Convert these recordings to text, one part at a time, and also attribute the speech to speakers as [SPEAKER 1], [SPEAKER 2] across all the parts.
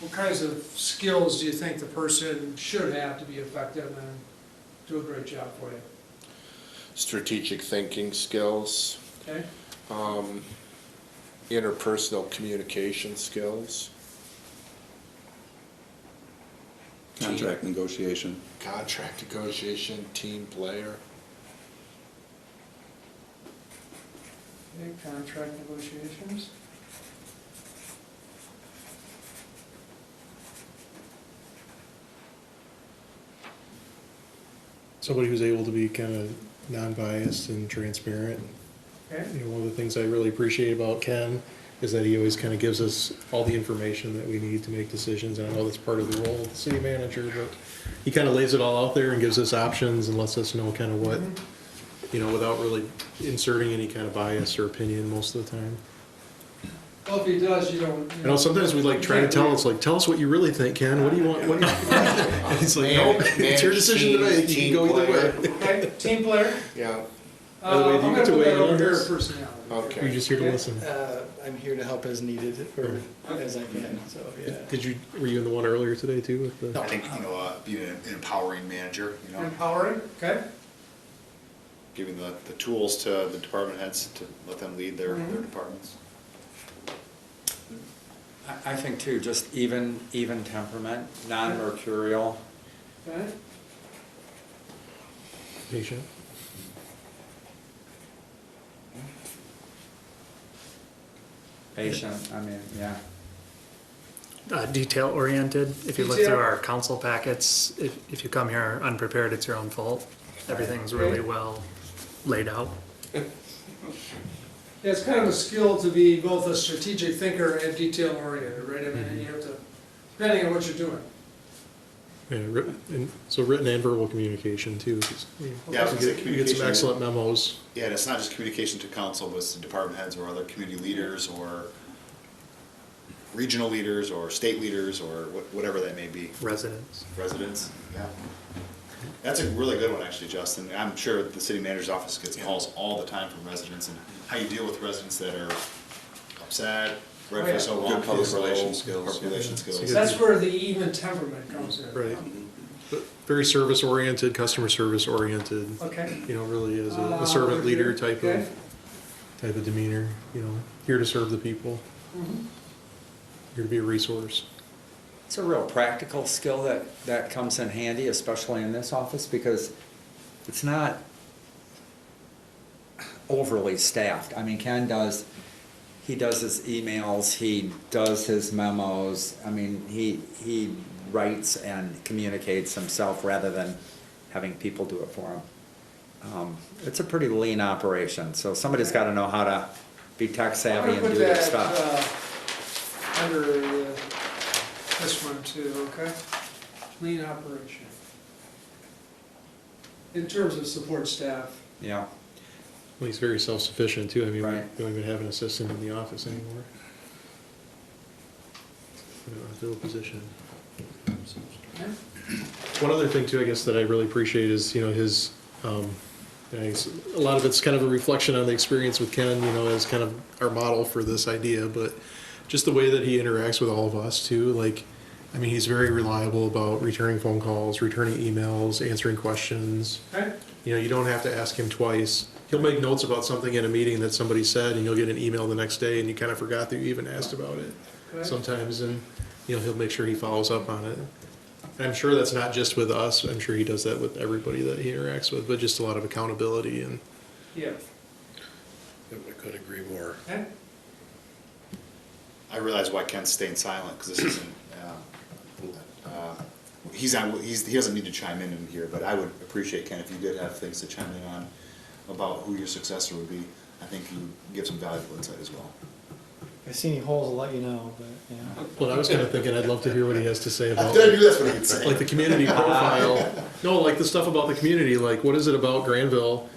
[SPEAKER 1] What kinds of skills do you think the person should have to be effective and do a great job for you?
[SPEAKER 2] strategic thinking skills,
[SPEAKER 1] Okay?
[SPEAKER 2] um, interpersonal communication skills,
[SPEAKER 3] Contract negotiation.
[SPEAKER 2] contract negotiation, team player.
[SPEAKER 1] Okay, contract negotiations.
[SPEAKER 4] somebody who's able to be kind of non-biased and transparent.
[SPEAKER 1] Okay?
[SPEAKER 4] You know, one of the things I really appreciate about Ken is that he always kind of gives us all the information that we need to make decisions. And I know that's part of the role of the city manager, but he kind of lays it all out there and gives us options and lets us know kind of what, you know, without really inserting any kind of bias or opinion most of the time.
[SPEAKER 1] Well, if he does, you don't.
[SPEAKER 4] You know, sometimes we like try to tell us like, tell us what you really think, Ken. What do you want? What do you?
[SPEAKER 2] uh,
[SPEAKER 4] And he's like, no, it's your decision to make. You can go either way.
[SPEAKER 1] Okay, team player.
[SPEAKER 2] Yeah,
[SPEAKER 4] By the
[SPEAKER 1] Uh,
[SPEAKER 4] way, do you
[SPEAKER 1] I'm
[SPEAKER 4] get
[SPEAKER 1] gonna
[SPEAKER 4] to
[SPEAKER 1] put
[SPEAKER 4] weigh
[SPEAKER 1] that
[SPEAKER 4] in
[SPEAKER 1] over
[SPEAKER 4] on
[SPEAKER 1] there,
[SPEAKER 4] this?
[SPEAKER 1] personality.
[SPEAKER 4] We're
[SPEAKER 2] okay.
[SPEAKER 4] just here to listen.
[SPEAKER 5] Uh, I'm here to help as needed or as I can, so, yeah.
[SPEAKER 4] Did you, were you in the one earlier today too with the?
[SPEAKER 6] I think, you know, uh, being an empowering manager, you know,
[SPEAKER 1] Empowering, okay?
[SPEAKER 6] giving the, the tools to the department heads to let them lead their, their
[SPEAKER 1] Mhm.
[SPEAKER 6] departments.
[SPEAKER 7] I- I think too, just even, even temperament, non-mercurial,
[SPEAKER 1] Okay?
[SPEAKER 4] Patient.
[SPEAKER 7] patient, I mean, yeah.
[SPEAKER 8] uh, detail oriented. If you look
[SPEAKER 1] Detail.
[SPEAKER 8] through our council packets, if, if you come here unprepared, it's your own fault. Everything's really well laid out.
[SPEAKER 1] Yeah, it's kind of a skill to be both a strategic thinker and detail oriented, right? I
[SPEAKER 4] Mm-hmm.
[SPEAKER 1] mean, you have to, depending on what you're doing.
[SPEAKER 4] Yeah, written, and, so written and verbal communication too. 'cause we-
[SPEAKER 6] Yeah, I was
[SPEAKER 4] We
[SPEAKER 6] gonna say
[SPEAKER 4] get we get some
[SPEAKER 6] communication.
[SPEAKER 4] excellent memos.
[SPEAKER 6] Yeah, and it's not just communication to council, but it's to department heads or other community leaders or regional leaders or state leaders or wha- whatever that may be,
[SPEAKER 8] Residents.
[SPEAKER 6] residents, yeah. That's a really good one, actually, Justin. I'm sure the city manager's office gets calls all the time from residents and how you deal with residents that are upset, right for so long.
[SPEAKER 3] Good public
[SPEAKER 6] so-
[SPEAKER 3] relations skills,
[SPEAKER 6] public
[SPEAKER 3] yeah.
[SPEAKER 6] relations skills.
[SPEAKER 4] good.
[SPEAKER 1] That's where the even temperament comes in.
[SPEAKER 4] Right. But very service oriented, customer service oriented,
[SPEAKER 1] Okay.
[SPEAKER 4] you know, really as a-
[SPEAKER 1] Uh,
[SPEAKER 4] a servant leader type
[SPEAKER 1] okay.
[SPEAKER 4] of, type of demeanor, you know, here to serve the people,
[SPEAKER 6] Mm-hmm.
[SPEAKER 1] Mhm.
[SPEAKER 4] here to be a resource.
[SPEAKER 7] It's a real practical skill that, that comes in handy, especially in this office, because it's not overly staffed. I mean, Ken does, he does his emails, he does his memos, I mean, he, he writes and communicates himself rather than having people do it for him. Um, It's a pretty lean operation, so somebody's gotta know how to be tech
[SPEAKER 1] I'm gonna
[SPEAKER 7] savvy and do
[SPEAKER 1] put
[SPEAKER 7] their
[SPEAKER 1] that,
[SPEAKER 7] stuff.
[SPEAKER 1] uh, under uh, this one too, okay? Lean operation. In terms of support staff,
[SPEAKER 7] Yeah.
[SPEAKER 4] Well, he's very self-sufficient too. I mean, we
[SPEAKER 7] Right.
[SPEAKER 4] don't even have an assistant in the office anymore. We don't have to fill a position.
[SPEAKER 1] okay?
[SPEAKER 4] One other thing too, I guess, that I really appreciate is, you know, his, um, I guess a lot of it's kind of a reflection on the experience with Ken, you know, as kind of our model for this idea, but just the way that he interacts with all of us too, like, I mean, he's very reliable about returning phone calls, returning emails, answering questions.
[SPEAKER 1] Okay?
[SPEAKER 4] You know, you don't have to ask him twice. He'll make notes about something in a meeting that somebody said, and you'll get an email the next day, and you kind of forgot that you even asked about it
[SPEAKER 1] Correct.
[SPEAKER 4] sometimes, and, you know, he'll make sure he follows up on it. And I'm sure that's not just with us, I'm sure he does that with everybody that he interacts with, but just a lot of accountability and
[SPEAKER 1] Yeah,
[SPEAKER 3] I could agree more.
[SPEAKER 1] okay?
[SPEAKER 6] I realize why Ken's staying silent, because this isn't, uh, uh, he's not, he's, he doesn't need to chime in in here, but I would appreciate, Ken, if you did have things to chime in on about who your successor would be, I think you give some valuable insight as well.
[SPEAKER 5] If I see any holes, I'll let you know, but, yeah.
[SPEAKER 4] Well, I was kind of thinking, I'd love to hear what he has to say about,
[SPEAKER 6] Did I do that's what I could say?
[SPEAKER 4] like, the community profile. No, like the stuff about the community, like, what is it about Granville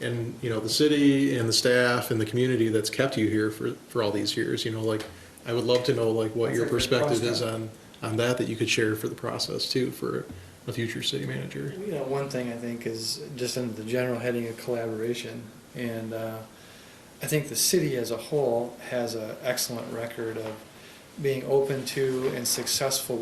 [SPEAKER 4] and, you know, the city and the staff and the community that's kept you here for, for all these years? You know, like, I would love to know, like, what
[SPEAKER 7] That's
[SPEAKER 4] your
[SPEAKER 7] a good
[SPEAKER 4] perspective is
[SPEAKER 7] question.
[SPEAKER 4] on, on that, that you could share for the process too, for a future city manager.
[SPEAKER 5] You know, one thing I think is just under the general heading of collaboration, and uh, I think the city as a whole has an excellent record of being open to and successful